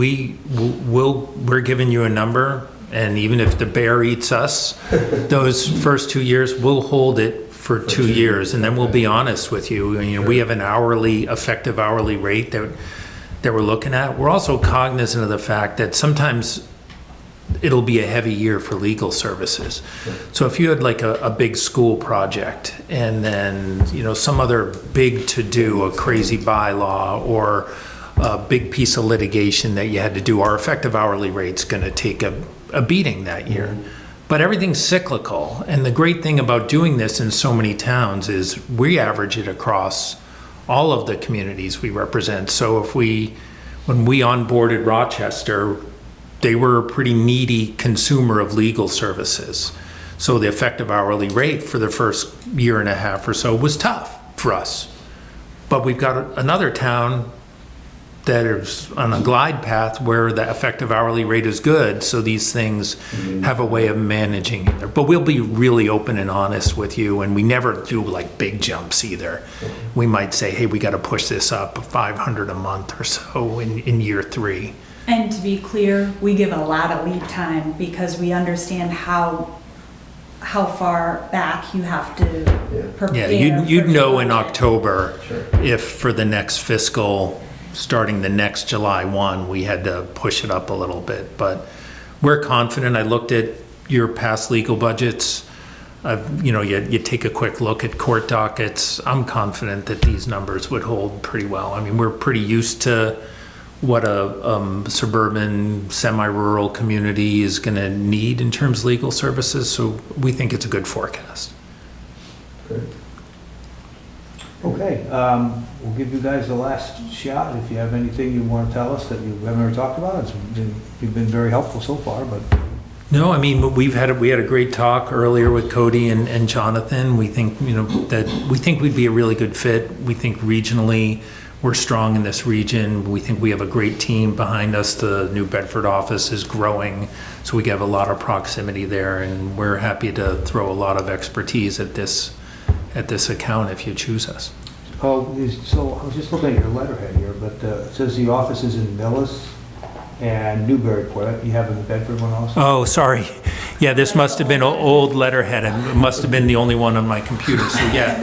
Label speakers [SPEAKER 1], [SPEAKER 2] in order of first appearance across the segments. [SPEAKER 1] We w- will, we're giving you a number, and even if the bear eats us, those first two years, we'll hold it for two years, and then we'll be honest with you. And, You know, we have an hourly, effective hourly rate that, that we're looking at. We're also cognizant of the fact that sometimes it'll be a heavy year for legal services. So if you had like a, a big school project and then, you know, some other big to-do, a crazy bylaw or a big piece of litigation that you had to do, our effective hourly rate's gonna take a, a beating that year. But everything's cyclical, and the great thing about doing this in so many towns is we average it across all of the communities we represent. So if we, when we onboarded Rochester, they were a pretty needy consumer of legal services. So the effective hourly rate for the first year and a half or so was tough for us. But we've got another town that is on a glide path where the effective hourly rate is good, so these things have a way of managing it. But we'll be really open and honest with you, and we never do like big jumps either. We might say, hey, we got to push this up 500 a month or so in, in year three.
[SPEAKER 2] And to be clear, we give a lot of lead time because we understand how, how far back you have to
[SPEAKER 1] Yeah,
[SPEAKER 2] prepare.
[SPEAKER 1] you'd,
[SPEAKER 2] for
[SPEAKER 1] you'd know in
[SPEAKER 2] development.
[SPEAKER 1] October
[SPEAKER 3] Sure.
[SPEAKER 1] if for the next fiscal, starting the next July 1, we had to push it up a little bit. But we're confident. I looked at your past legal budgets. I've, you know, you, you take a quick look at court dockets. I'm confident that these numbers would hold pretty well. I mean, we're pretty used to what a um, suburban, semi-rural community is going to need in terms of legal services. So we think it's a good forecast.
[SPEAKER 4] Okay, um, we'll give you guys the last shot. If you have anything you want to tell us that you haven't ever talked about, it's been, you've been very helpful so far, but
[SPEAKER 1] No, I mean, we've had, a- we had a great talk earlier with Cody and, and Jonathan. We think, you know, that, we think we'd be a really good fit. We think regionally, we're strong in this region. We think we have a great team behind us. The New Bedford office is growing, so we have a lot of proximity there, and we're happy to throw a lot of expertise at this, at this account if you choose us.
[SPEAKER 4] Oh, is, so I was just looking at your letterhead here, but uh, it says the office is in Millis and Newburyport. You have in the Bedford one also?
[SPEAKER 1] Oh, sorry. Yeah, this must have been o- old letterhead, and it must have been the only one on my computer, so yeah.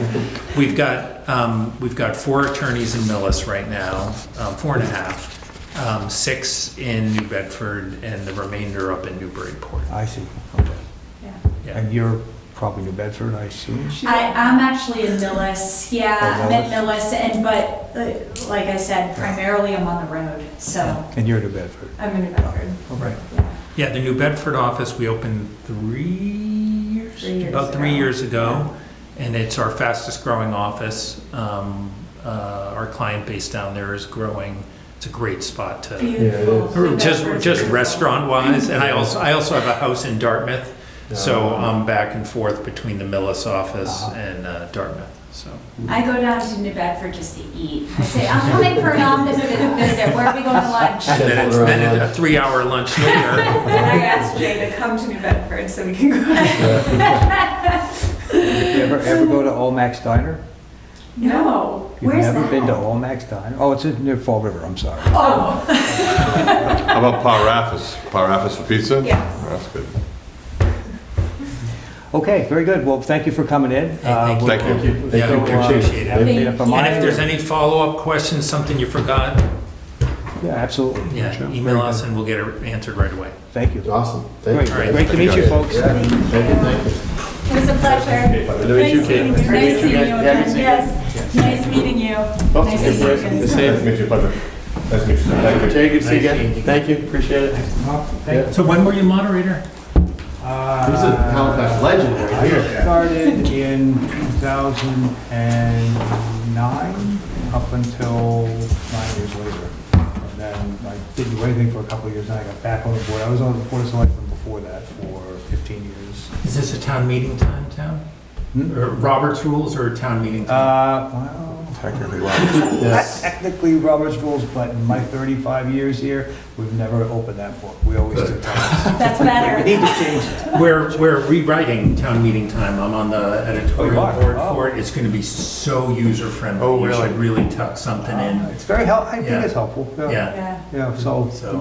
[SPEAKER 1] We've got, um, we've got four attorneys in Millis right now, um, four and a half, um, six in New Bedford, and the remainder up in Newburyport.
[SPEAKER 4] I see, okay.
[SPEAKER 2] Yeah.
[SPEAKER 1] Yeah.
[SPEAKER 4] And you're probably New Bedford, I assume?
[SPEAKER 2] I, I'm actually in Millis, yeah, I'm at
[SPEAKER 4] Oh,
[SPEAKER 2] Millis, and, but, uh, like I said, primarily I'm on the road, so
[SPEAKER 4] And you're New Bedford?
[SPEAKER 2] I'm in Bedford.
[SPEAKER 4] Okay.
[SPEAKER 2] yeah.
[SPEAKER 1] Yeah, the New Bedford office, we opened three years?
[SPEAKER 2] Three years
[SPEAKER 1] About three
[SPEAKER 2] ago.
[SPEAKER 1] years ago, and it's our fastest growing office. Um, uh, our client base down there is growing. It's a great spot to.
[SPEAKER 2] Beautiful.
[SPEAKER 1] Just,
[SPEAKER 2] Bedford's
[SPEAKER 1] just
[SPEAKER 2] beautiful.
[SPEAKER 1] restaurant wise, and I also, I also have a house in Dartmouth, so I'm back and forth between the Millis office
[SPEAKER 4] Uh-huh.
[SPEAKER 1] and uh, Dartmouth, so.
[SPEAKER 2] I go down to New Bedford just to eat. I say, I'm coming for an office visit, where are we going to lunch?
[SPEAKER 1] And then it's been a three hour lunch later,
[SPEAKER 2] Uh,
[SPEAKER 5] And I asked Jay to come to New Bedford so we can go.
[SPEAKER 4] Did you ever, ever go to Olmax Diner?
[SPEAKER 2] No,
[SPEAKER 4] You've
[SPEAKER 2] where's that?
[SPEAKER 4] never been to Olmax Diner? Oh, it's in- near Fall River, I'm sorry.
[SPEAKER 2] Oh,
[SPEAKER 6] How about Parafas? Parafas for pizza?
[SPEAKER 5] Yes.
[SPEAKER 6] That's good.
[SPEAKER 4] Okay, very good. Well, thank you for coming in. Uh,
[SPEAKER 1] thank
[SPEAKER 6] Thank you.
[SPEAKER 1] yeah, we appreciate it.
[SPEAKER 2] Thank you.
[SPEAKER 1] And if there's any follow up questions, something you forgot,
[SPEAKER 4] Yeah, absolutely.
[SPEAKER 1] yeah, email us and we'll get it answered right away.
[SPEAKER 4] Thank you.
[SPEAKER 3] Awesome. Thank
[SPEAKER 4] Great,
[SPEAKER 3] you.
[SPEAKER 1] Alright,
[SPEAKER 4] great to meet you, folks.
[SPEAKER 3] Yeah. Thank you, thank you.
[SPEAKER 2] it was a pleasure.
[SPEAKER 6] Nice meeting
[SPEAKER 2] Nice seeing you
[SPEAKER 3] Yeah,
[SPEAKER 2] again,
[SPEAKER 3] good seeing you.
[SPEAKER 2] yes. Nice meeting you. Nice to see you again.
[SPEAKER 6] Nice to meet you, pleasure. Nice to meet you. Thank you.
[SPEAKER 3] Jay, good to see you again. Thank you, appreciate it.
[SPEAKER 4] Thank
[SPEAKER 1] So when were you moderator?
[SPEAKER 4] Uh,
[SPEAKER 3] He's a Halifax legend right
[SPEAKER 4] I
[SPEAKER 3] here.
[SPEAKER 4] started in 2009, up until nine years later. And then I didn't do anything for a couple of years, then I got back on the board. I was on the board of selectmen before that for 15 years.
[SPEAKER 1] Is this a town meeting time, town?
[SPEAKER 4] Hmm?
[SPEAKER 1] Or Robert's rules or town meeting time?
[SPEAKER 4] Uh, well,
[SPEAKER 6] Technically, wow.
[SPEAKER 4] not
[SPEAKER 3] Yes.
[SPEAKER 4] technically Robert's rules, but in my 35 years here, we've never opened that book. We always do.
[SPEAKER 2] That's
[SPEAKER 4] We
[SPEAKER 2] better.
[SPEAKER 4] need to change it.
[SPEAKER 1] We're, we're rewriting town meeting time. I'm on the editorial
[SPEAKER 4] Oh, you are?
[SPEAKER 1] board
[SPEAKER 4] Oh.
[SPEAKER 1] for it. It's going to be so user friendly.
[SPEAKER 6] Oh,
[SPEAKER 1] You
[SPEAKER 6] really?
[SPEAKER 1] should really tuck something in.
[SPEAKER 4] It's very helpful, I think
[SPEAKER 1] Yeah.
[SPEAKER 4] it's helpful, yeah.
[SPEAKER 1] Yeah.
[SPEAKER 2] Yeah.
[SPEAKER 4] Yeah, so
[SPEAKER 1] So-